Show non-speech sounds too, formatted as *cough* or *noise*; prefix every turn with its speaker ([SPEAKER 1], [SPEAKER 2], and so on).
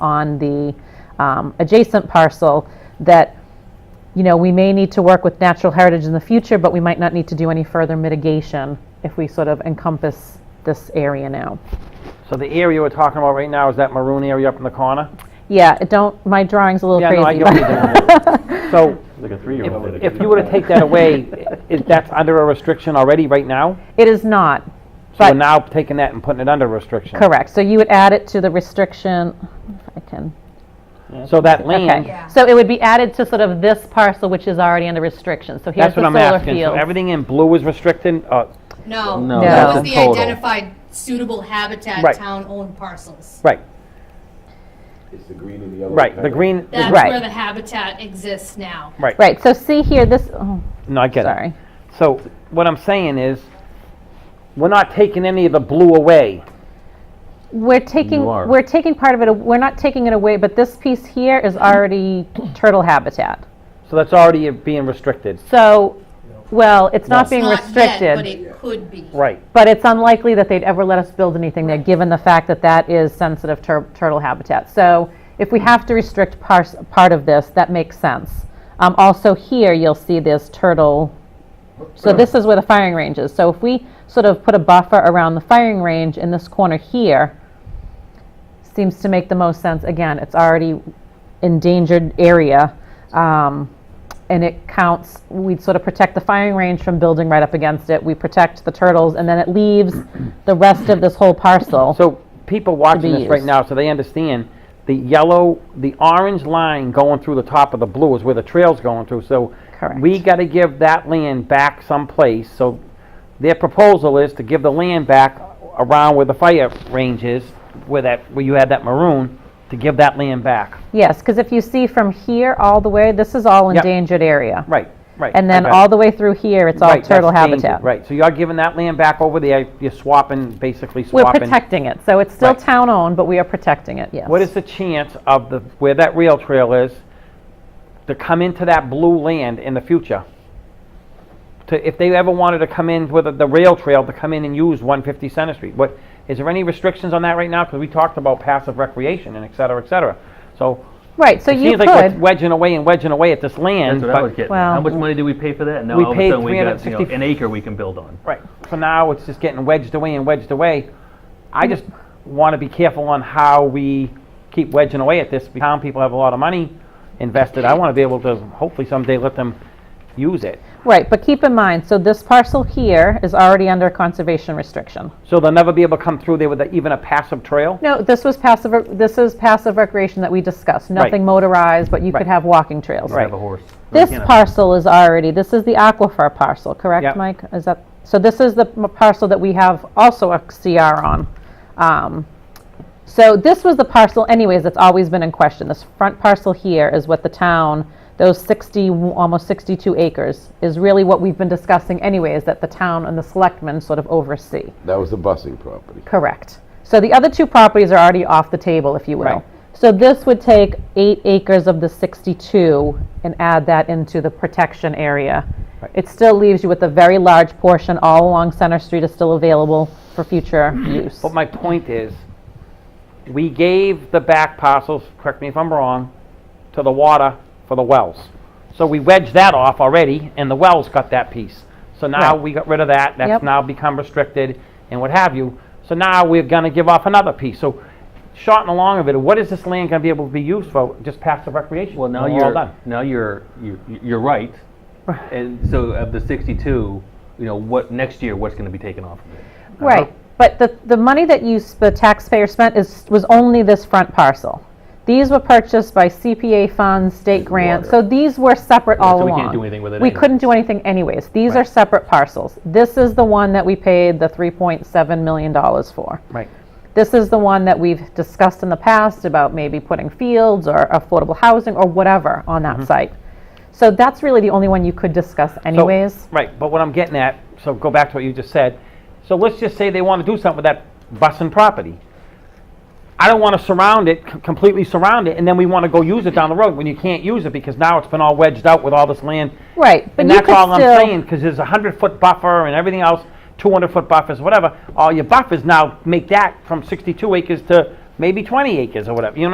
[SPEAKER 1] on the um, adjacent parcel that, you know, we may need to work with natural heritage in the future, but we might not need to do any further mitigation if we sort of encompass this area now.
[SPEAKER 2] So the area we're talking about right now is that maroon area up in the corner?
[SPEAKER 1] Yeah, it don't, my drawing's a little
[SPEAKER 2] Yeah, no, I
[SPEAKER 1] crazy.
[SPEAKER 2] get what you're
[SPEAKER 1] *laughs*
[SPEAKER 2] doing. So
[SPEAKER 3] Like a three-year-old. did
[SPEAKER 2] if
[SPEAKER 3] it.
[SPEAKER 2] you were to take that away, is, that's under a restriction already right now?
[SPEAKER 1] but It is not,
[SPEAKER 2] So we're
[SPEAKER 1] But-
[SPEAKER 2] now taking that and putting it under restriction?
[SPEAKER 1] correct. So you would add it to the restriction, if I can.
[SPEAKER 2] So that land,
[SPEAKER 1] Okay, so it would be added to sort of this parcel, which is already under restriction. So here's
[SPEAKER 2] that's
[SPEAKER 1] the
[SPEAKER 2] what I'm
[SPEAKER 1] solar
[SPEAKER 2] asking. So
[SPEAKER 1] field.
[SPEAKER 2] everything in blue is restricted? Uh,
[SPEAKER 4] No.
[SPEAKER 3] No,
[SPEAKER 1] No.
[SPEAKER 4] That
[SPEAKER 1] that's
[SPEAKER 4] was
[SPEAKER 3] in
[SPEAKER 4] the
[SPEAKER 3] total.
[SPEAKER 4] identified suitable habitat,
[SPEAKER 2] Right.
[SPEAKER 4] town-owned parcels.
[SPEAKER 2] Right,
[SPEAKER 5] It's the green and the yellow.
[SPEAKER 2] right, the
[SPEAKER 5] kind of-
[SPEAKER 2] green is
[SPEAKER 4] That's
[SPEAKER 1] Right.
[SPEAKER 4] where the habitat exists now.
[SPEAKER 2] right.
[SPEAKER 1] Right, so see here, this, oh,
[SPEAKER 2] No, I get it.
[SPEAKER 1] sorry.
[SPEAKER 2] So what I'm saying is, we're not taking any of the blue away.
[SPEAKER 1] We're taking,
[SPEAKER 3] You are.
[SPEAKER 1] we're taking part of it, a- we're not taking it away, but this piece here is already turtle habitat.
[SPEAKER 2] So that's already being restricted.
[SPEAKER 1] So, well, it's not being
[SPEAKER 4] Not yet, but
[SPEAKER 1] restricted,
[SPEAKER 4] it could be.
[SPEAKER 2] Right.
[SPEAKER 1] but it's unlikely that they'd ever let us build anything there, given the fact that that is sensitive tur- turtle habitat. So if we have to restrict pars- part of this, that makes sense. Um, Also here, you'll see this turtle, so this is where the firing range is. So if we sort of put a buffer around the firing range in this corner here, seems to make the most sense. Again, it's already endangered area. um, And it counts, we sort of protect the firing range from building right up against it. We protect the turtles and then it
[SPEAKER 2] *clears throat*
[SPEAKER 1] leaves the rest of this whole parcel.
[SPEAKER 2] So people watching this right
[SPEAKER 1] used.
[SPEAKER 2] now, so they understand, the yellow, the orange line going through the top of the blue is where the trail's going through, so we
[SPEAKER 1] Correct.
[SPEAKER 2] gotta give that land back someplace, so their proposal is to give the land back around where the fire range is, where that, where you had that maroon, to give that land back.
[SPEAKER 1] Yes, because if you see from here all the way, this is all
[SPEAKER 2] Yep.
[SPEAKER 1] endangered area.
[SPEAKER 2] Right, right.
[SPEAKER 1] And
[SPEAKER 2] I
[SPEAKER 1] then
[SPEAKER 2] got it.
[SPEAKER 1] all the way through here, it's all
[SPEAKER 2] Right, that's
[SPEAKER 1] turtle
[SPEAKER 2] dangerous,
[SPEAKER 1] habitat.
[SPEAKER 2] Right, so you're giving that land back over there, you're swapping, basically
[SPEAKER 1] We're
[SPEAKER 2] swapping.
[SPEAKER 1] protecting it, so it's still
[SPEAKER 2] Right.
[SPEAKER 1] town-owned, but we are protecting it, yes.
[SPEAKER 2] What is the chance of the, where that rail trail is, to come into that blue land in the future? To, if they ever wanted to come in with the- the rail trail, to come in and use 150 Center Street? What, is there any restrictions on that right now? Because we talked about passive recreation and et cetera, et cetera. So
[SPEAKER 1] Right, so
[SPEAKER 2] it
[SPEAKER 1] you
[SPEAKER 2] seems like we're
[SPEAKER 1] could,
[SPEAKER 2] wedging away and wedging away at this land,
[SPEAKER 6] That's what I was
[SPEAKER 2] but,
[SPEAKER 6] getting. at.
[SPEAKER 1] Well-
[SPEAKER 6] How much money do we pay for that? And now
[SPEAKER 2] We
[SPEAKER 6] all of
[SPEAKER 2] paid
[SPEAKER 6] a sudden we got, you know,
[SPEAKER 2] 350
[SPEAKER 6] an acre we can build on.
[SPEAKER 2] right, for now, it's just getting wedged away and wedged away. I just want to be careful on how we keep wedging away at this. Town people have a lot of money invested. I want to be able to hopefully someday let them use it.
[SPEAKER 1] right, but keep in mind, so this parcel here is already under conservation restriction.
[SPEAKER 2] So they'll never be able to come through there with a- even a passive trail?
[SPEAKER 1] No, this was passive, this is passive recreation that we discussed, nothing motorized, but you could
[SPEAKER 2] Right.
[SPEAKER 1] have walking trails.
[SPEAKER 2] Right.
[SPEAKER 6] Have a horse.
[SPEAKER 1] This
[SPEAKER 6] You know.
[SPEAKER 1] parcel is already, this is the aquifer parcel,
[SPEAKER 2] Yep.
[SPEAKER 1] correct, Mike? Is that, so this is the m- parcel that we have also a CR on. Um, So this was the parcel anyways that's always been in question. This front parcel here is what the town, those 60, almost 62 acres, is really what we've been discussing anyways, that the town and the selectmen sort of oversee.
[SPEAKER 5] That was the busing property.
[SPEAKER 1] Correct. So the other two properties are already off the table, if you
[SPEAKER 2] Right.
[SPEAKER 1] will. So this would take eight acres of the 62 and add that into the protection area. It still leaves you with a very large portion all along Center Street is still available for
[SPEAKER 2] *clears throat*
[SPEAKER 1] future use.
[SPEAKER 2] But my point is, we gave the back parcels, correct me if I'm wrong, to the water for the wells. So we wedged that off already, and the wells got that piece. So now
[SPEAKER 1] Right.
[SPEAKER 2] we got rid of that, that's
[SPEAKER 1] Yep.
[SPEAKER 2] now become restricted and what have you. So now we're gonna give off another piece. So short and long of it, what is this land gonna be able to be used for, just passive recreation?
[SPEAKER 6] Well, now
[SPEAKER 2] We're all
[SPEAKER 6] you're,
[SPEAKER 2] done.
[SPEAKER 6] now you're, you- you're right. And so of the 62, you know, what, next year, what's going to be taken off of it?
[SPEAKER 1] Right, but the, the money that you, s- the taxpayer spent is, was only this front parcel. These were purchased by CPA funds, state grants, so these were separate all
[SPEAKER 6] so
[SPEAKER 1] along.
[SPEAKER 6] we can't do anything with it
[SPEAKER 1] We
[SPEAKER 6] anyway.
[SPEAKER 1] couldn't do anything anyways. These are separate parcels. This is the one that we paid the $3.7 million for.
[SPEAKER 2] Right.
[SPEAKER 1] This is the one that we've discussed in the past about maybe putting fields or affordable housing or whatever on
[SPEAKER 6] Mm-hmm.
[SPEAKER 1] that site. So that's really the only one you could discuss
[SPEAKER 2] So-
[SPEAKER 1] anyways.
[SPEAKER 2] Right, but what I'm getting at, so go back to what you just said. So let's just say they want to do something with that busing property. I don't want to surround it, c- completely surround it, and then we want to go use it down the road when you can't use it because now it's been all wedged out with all this land.
[SPEAKER 1] Right, but
[SPEAKER 2] And
[SPEAKER 1] you
[SPEAKER 2] that's
[SPEAKER 1] could
[SPEAKER 2] all I'm
[SPEAKER 1] still-
[SPEAKER 2] saying, because there's a hundred foot buffer and everything else, two hundred foot buffers, whatever. All your buffers now make that from sixty-two acres to maybe twenty acres or whatever, you know